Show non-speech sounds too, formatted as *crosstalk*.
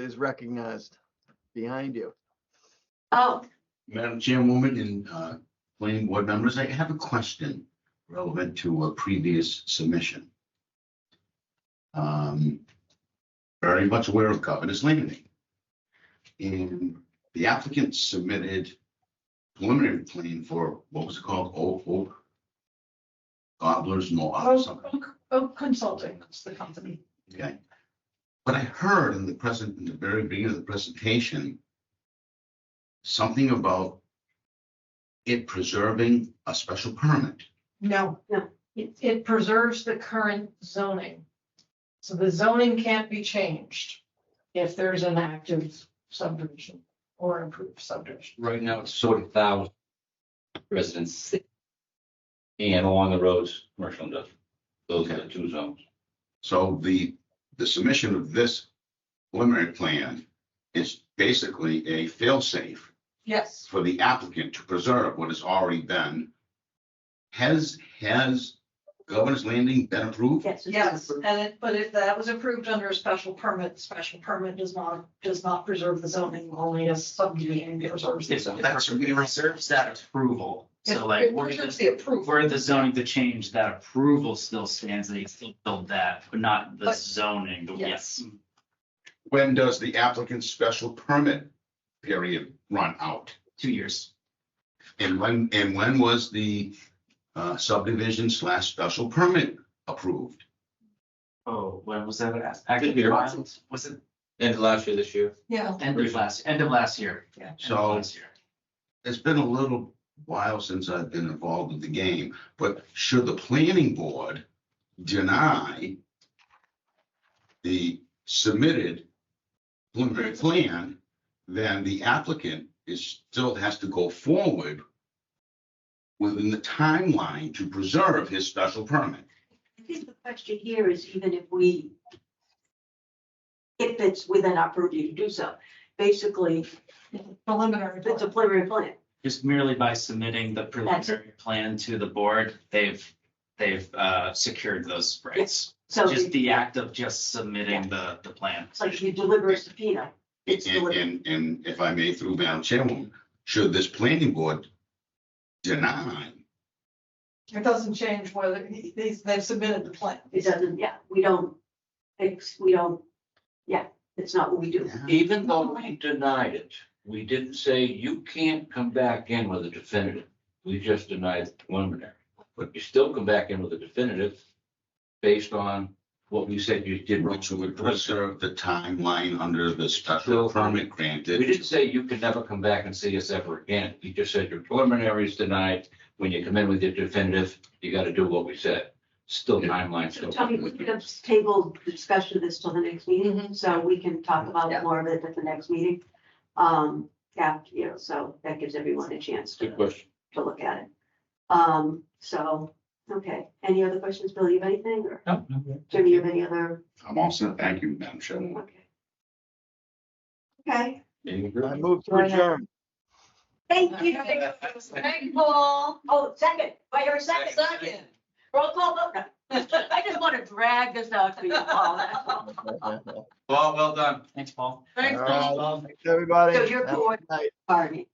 is recognized behind you. Oh, Madam Chairwoman and uh, planning board members, I have a question relevant to a previous submission. Um, Very much aware of Governor's Landing. And the applicant submitted preliminary plan for, what was it called, Oak Oak? Gobblers, no, or Oak, something, Oak- Oak Oh, Consulting, that's the company. okay? But I heard in the present, in the very beginning of the presentation, something about it preserving a special permit. No. No. It, it preserves the current zoning. So the zoning can't be changed if there's an active subdivision or improved subdivision. Right now, it's sort of thousand residents. And along the roads, commercial and industrial. Those are the two zones. So the, the submission of this preliminary plan is basically a failsafe Yes. for the applicant to preserve what has already been. Has, has Governor's Landing been approved? yes. it's Yes, approved. and it, but if that was approved under a special permit, special permit does not, does not preserve the zoning, only a subdivision preserves. the It's, that's, we reserves that approval, so like, It we're preserves the the, approval. we're the zoning to change, that approval still stands, they still build that, but not the But- zoning, but Yes. yes. When does the applicant's special permit period run out? Two years, And when, and when was the uh, subdivision slash special permit approved? oh, when was that, Good year. was it End of last year, this year. Yeah. end of last, end of last year? End of So- last year. it's been a little while since I've been involved in the game, but should the planning board deny the submitted preliminary plan, then the applicant is, still has to go forward within the timeline to preserve his special permit. I think the question here is even if we, if it's within our purview to do so, basically, Preliminary. if it's a preliminary plan, Just merely by submitting the preliminary plan to the board, they've, they've, uh, secured those rights. so Just it's the act of just submitting the, the plan. like you deliver a subpoena. It's And, delivered. and, and if I may, through Madam Chairwoman, should this planning board deny It doesn't change whether, they, they've submitted the plan. It doesn't, yeah, we don't, it's, we don't, yeah, it's not what we do. Even though we denied it, we didn't say you can't come back in with a definitive. We just denied the preliminary. But you still come back in with a definitive based on what we said you did. wrong. Which would preserve the timeline under the special So- permit We granted. didn't say you could never come back and see us ever again. You just said your preliminary is denied. When you come in with your definitive, you gotta do what we said. Still timeline, still. Tony, we could have tabled the discussion of this till the next meeting, so we can talk about Mm-hmm. Yeah. it more of it at the next meeting. Um, yeah, you know, so that gives everyone a chance to, Good question. to look at it. Um, so, okay, any other questions, Bill, you have anything, or No, no, Jim, you have any other, I'm all set. Thank you, Madam Chairman. okay? Okay, I move to adjourn. *laughs* thank you. Thank Paul. Oh, second, wait a second, Second. roll call vote. *laughs* I just want to drag this out for you all, that's all. Well, well done. Thanks, Paul. Thanks, All right. Paul. Thanks, Everybody. So you're Have a bored. good night. Pardon me.